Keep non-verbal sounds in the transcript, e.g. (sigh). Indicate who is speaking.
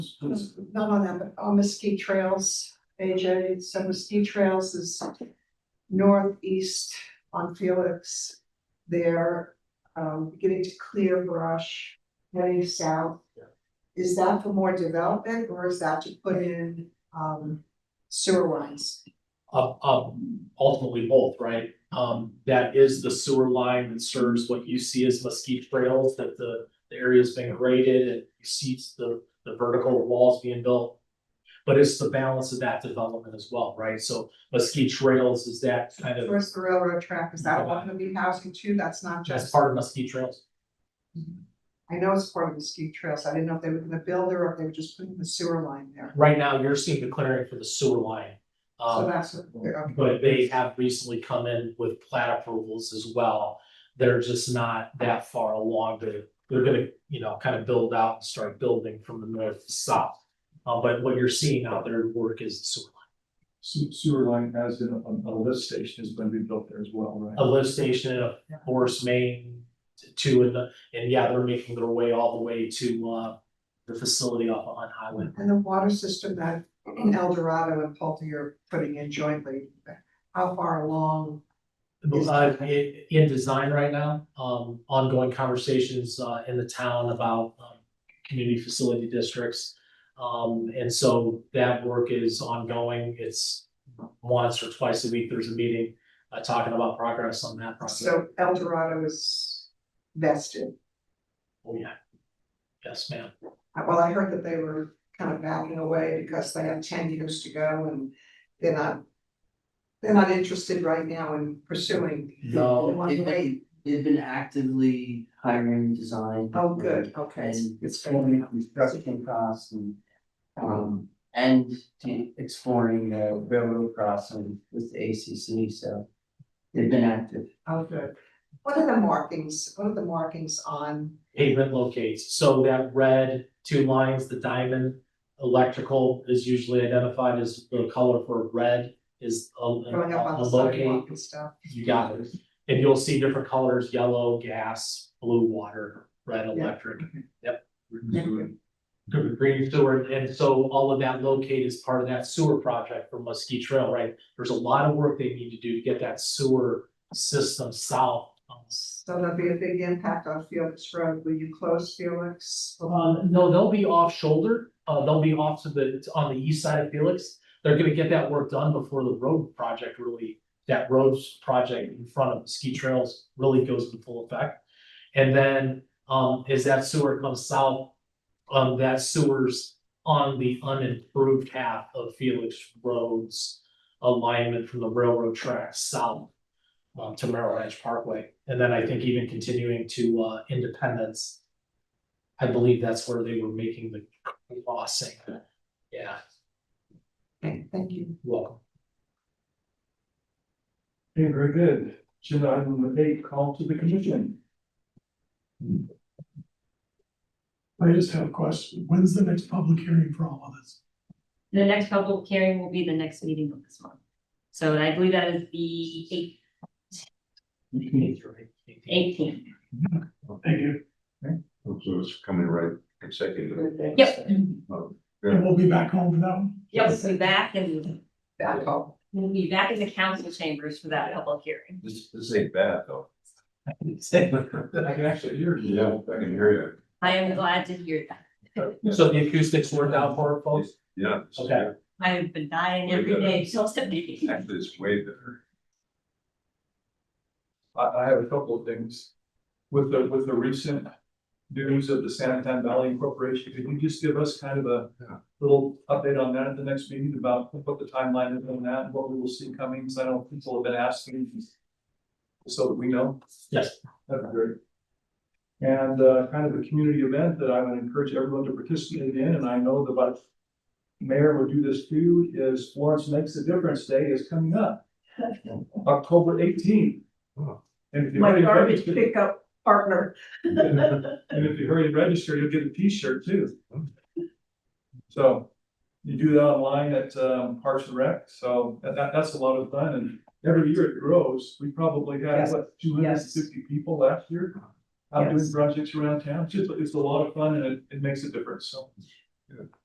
Speaker 1: not on that, but on Mesquite Trails, AJ, so Mesquite Trails is northeast on Felix. They're um beginning to clear brush, heading south. Is that for more development or is that to put in um sewer lines?
Speaker 2: Uh, um, ultimately both, right? Um, that is the sewer line that serves what you see as mesquite trails, that the, the area's been graded and you see the, the vertical walls being built. But it's the balance of that development as well, right? So mesquite trails is that kind of,
Speaker 1: Towards the railroad track, is that one gonna be housing too? That's not
Speaker 2: that's
Speaker 1: just,
Speaker 2: part of mesquite trails.
Speaker 1: I know it's part of Mesquite Trails. I didn't know if they were gonna build there or if they were just putting the sewer line there.
Speaker 2: Right now, you're seeing the clearing for the sewer line.
Speaker 1: So
Speaker 2: Um,
Speaker 1: that's what they're. okay.
Speaker 2: But they have recently come in with plat approvals as well. They're just not that far along. They're, they're gonna, you know, kind of build out and start building from the north to south. Uh, but what you're seeing out there at work is the sewer line.
Speaker 3: Sewer, sewer line as in a, a lift station is gonna be built there as well,
Speaker 2: A
Speaker 3: right?
Speaker 2: lift station, a forest main, two and, and yeah, they're making their way all the way to, uh, the facility off on Highway.
Speaker 1: And the water system that El Dorado and Pulte are putting in jointly, how far along? Is-
Speaker 2: Uh, in, in design right now, um, ongoing conversations, uh, in the town about, um, community facility districts. Um, and so that work is ongoing. It's once or twice a week, there's a meeting, uh, talking about progress on that project.
Speaker 1: So El Dorado is vested.
Speaker 2: Oh, yeah. Yes, ma'am.
Speaker 1: Uh, Well, I heard that they were kind of backing away because they have ten years to go and they're not. They're not interested right now in pursuing. They
Speaker 2: No,
Speaker 1: want to wait.
Speaker 4: They've been actively hiring design.
Speaker 1: Oh, good, okay.
Speaker 4: And
Speaker 1: It's
Speaker 4: exploring construction costs and, um, and to exploring the railroad crossing with the ACC, so. They've been active.
Speaker 1: Oh, good. What are the markings, what are the markings on,
Speaker 2: pavement locates. So that red two lines, the diamond electrical is usually identified as the color for red is a,
Speaker 1: going up on
Speaker 2: a
Speaker 1: the
Speaker 2: locate.
Speaker 1: sidewalk and stuff?
Speaker 2: You got it. And you'll see different colors, yellow, gas, blue, water, red, electric, green sewer. And so all of that locate is part of that sewer project for Muskie Trail, right? There's a lot of work they need to do to get that sewer system south.
Speaker 1: So there'll be a big impact on Felix Road. Will you close Felix?
Speaker 2: Um, no, they'll be off shoulder, uh, they'll be off to the, on the east side of Felix. They're gonna get that work done before the road project really, that roads project in front of ski trails really goes in full effect. And then, um, as that sewer comes south, um, that sewer's on the unimproved half of Felix Road's alignment from the railroad track south um, to Merrill Ranch Parkway. And then I think even continuing to, uh, Independence. I believe that's where they were making the crossing. Yeah,
Speaker 1: Okay, thank you.
Speaker 2: welcome.
Speaker 3: Okay, very good. Agenda item number eight, call to the commission.
Speaker 5: I just have a question. When's the next public hearing for all of this?
Speaker 6: The next public hearing will be the next meeting of this month. So I believe that is the eighteenth.
Speaker 5: Thank you.
Speaker 7: So it's coming right consecutive.
Speaker 6: Yep,
Speaker 5: And we'll be back home for that one.
Speaker 6: yep, we'll be back and
Speaker 1: Back home.
Speaker 6: we'll be back in the council chambers for that public hearing.
Speaker 7: This, this ain't bad though.
Speaker 3: I can actually hear you.
Speaker 7: Yeah, I can hear
Speaker 6: I am glad to hear that.
Speaker 7: you.
Speaker 2: (laughs) So the acoustics worked out for it, folks?
Speaker 7: Yeah. it's-
Speaker 2: Okay.
Speaker 6: I have been dying every day till today. (laughs)
Speaker 7: Actually, it's way better.
Speaker 3: I, I have a couple of things. With the, with the recent news of the San Antonio Valley Corporation, could you just give us kind of a
Speaker 7: Yeah.
Speaker 3: little update on that at the next meeting about what the timeline is on that, and what we will see coming, because I know people have been asking. So that we know.
Speaker 2: Yes.
Speaker 3: That'd be great. And uh, kind of a community event that I would encourage everyone to participate in, and I know the vice mayor would do this too, is Florence Makes a Difference Day is coming
Speaker 1: (laughs)
Speaker 3: up. October eighteenth.
Speaker 7: Wow.
Speaker 3: And if you
Speaker 1: my
Speaker 3: already
Speaker 1: garbage
Speaker 3: registered,
Speaker 1: pickup partner.
Speaker 3: and if you already registered, you'll get a T-shirt too. So you do that online at um, Parks and Rec, so that, that- that's a lot of fun, and every year it grows. We probably had,
Speaker 1: Yes.
Speaker 3: what, two hundred and fifty people last year? Out doing projects around town, it's just, it's a lot of fun and it, it makes a difference, so.